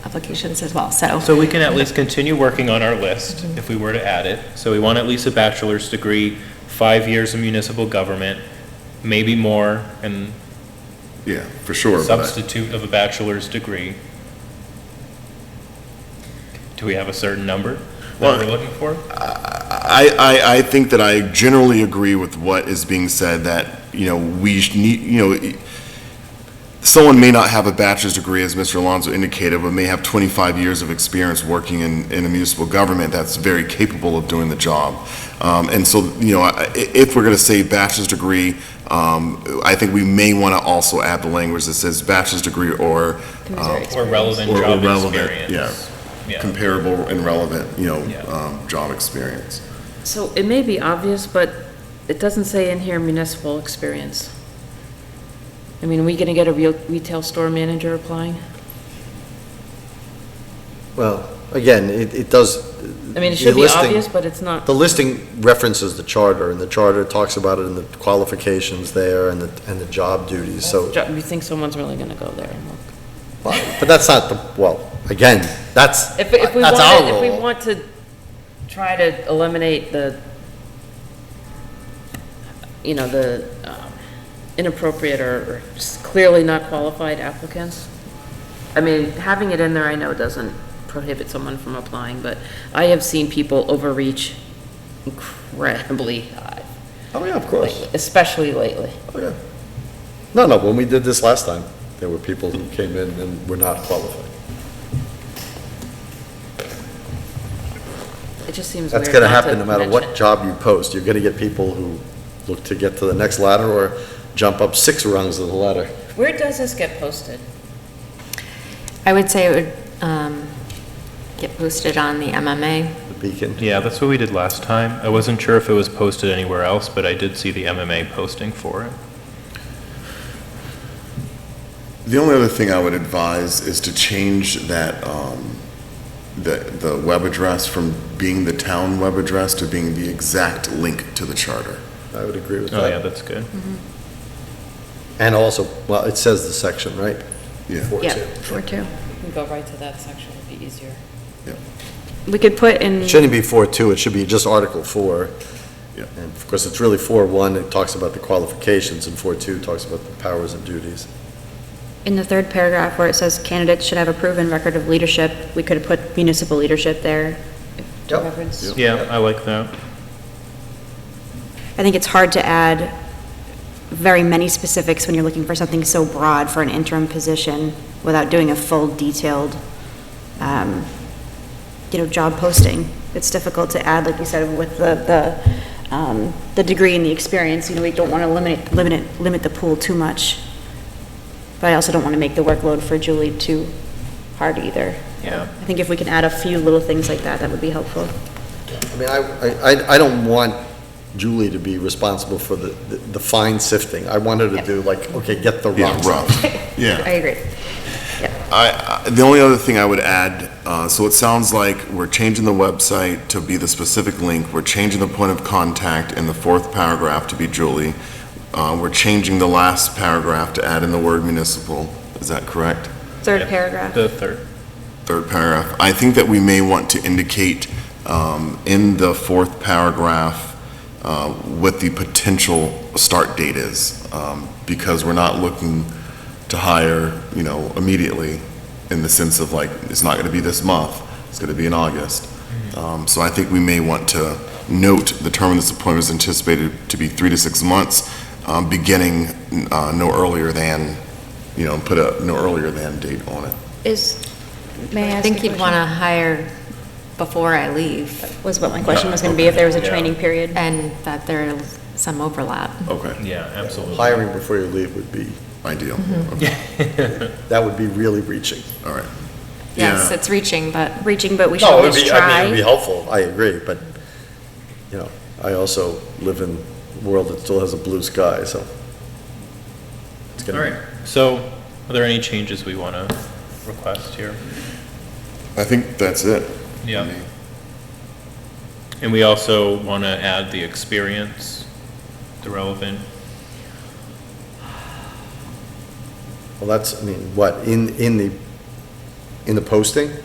applications as well, so. So we can at least continue working on our list if we were to add it. So we want at least a bachelor's degree, five years of municipal government, maybe more, and Yeah, for sure, but substitute of a bachelor's degree. Do we have a certain number that we're Well- looking for? I, I, I think that I generally agree with what is being said, that, you know, we sh- need, you know, i- someone may not have a bachelor's degree, as Mr. Alonso indicated, but may have 25 years of experience working in, in a municipal government that's very capable of doing the job. Um, and so, you know, I- i- if we're gonna say bachelor's degree, um, I think we may wanna also add the language that says bachelor's degree or um, Or relevant Or- or job relevant, experience? yeah. Yeah. comparable and relevant, you know, Yeah. um, job experience. So it may be obvious, but it doesn't say in here municipal experience. I mean, are we gonna get a real retail store manager applying? Well, again, it, it does. I mean, it should be obvious, but it's not. The listing references the charter, and the charter talks about it in the qualifications there and the, and the job duties, so, Jo- You think someone's really gonna go there and look? but that's not the, well, again, that's, If, if we that's our want, role. if we want to try to eliminate the, you know, the um, inappropriate or or just clearly not qualified applicants, I mean, having it in there, I know doesn't prohibit someone from applying, but I have seen people overreach incredibly high, Oh, yeah, of lately, especially lately. Oh, yeah. No, no, when we did this last time, there were people who came in and were not qualified. It just seems weird That's gonna not to happen no matter mention what it. job you post. You're gonna get people who look to get to the next ladder or jump up six rungs of the ladder. Where does this get posted? I would say it would um, get posted on the MMA. The beacon. Yeah, that's what we did last time. I wasn't sure if it was posted anywhere else, but I did see the MMA posting for it. The only other thing I would advise is to change that, um, the, the web address from being the town web address to being the exact link to the charter. I would agree with Oh, yeah, that. that's good. And also, well, it says the section, right? Yeah. Four Yeah, two. four two. We can go right to that section, it'd be easier. We could put in, It shouldn't be four two, it should be just Article four. Yeah. And of course, it's really four one, it talks about the qualifications, and four two talks about the powers and duties. In the third paragraph where it says candidates should have a proven record of leadership, we could have put municipal leadership there. to Yep. reference. Yeah, I like that. I think it's hard to add very many specifics when you're looking for something so broad for an interim position without doing a full detailed, um, you know, job posting. It's difficult to add, like you said, with the, the, um, the degree and the experience, you know, we don't want to limit, limit, it- limit the pool too much. But I also don't want to make the workload for Julie too hard either. Yeah. I think if we can add a few little things like that, that would be helpful. I mean, I, I- I, I don't want Julie to be responsible for the, the- the fine sifting. I want her to do like, okay, get the Yeah, rocks. rough. Yeah. I agree. I, I- the only other thing I would add, uh, so it sounds like we're changing the website to be the specific link, we're changing the point of contact in the fourth paragraph to be Julie, uh, we're changing the last paragraph to add in the word municipal, is that correct? Third Yeah. paragraph. The third. third paragraph, I think that we may want to indicate um, in the fourth paragraph uh, what the potential start date is, um, because we're not looking to hire, you know, immediately, in the sense of like, it's not going to be this month, it's going to be in August. Um, So I think we may want to note the term of this appointment is anticipated to be three to six months, um, beginning uh, no earlier than, you know, put a no earlier than date on it. Is, may I ask I a think you'd question? want to hire before I leave, Was what my question was going to be, if there was a Yeah. training period. and that there's some overlap. Okay. Yeah, absolutely. Hiring before you leave would be, Ideal. Mm-hmm. that would be really reaching. All right. Yes, Yeah. it's reaching, but Reaching, but we should at least I mean, it'd be try. helpful, I agree, but, you know, I also live in a world that still has a blue sky, so. it's All gonna right, so are there any changes we want to request here? I think that's it. Yeah. And we also want to add the experience, the relevant, Well, that's, I mean, what, in, in the, in the posting?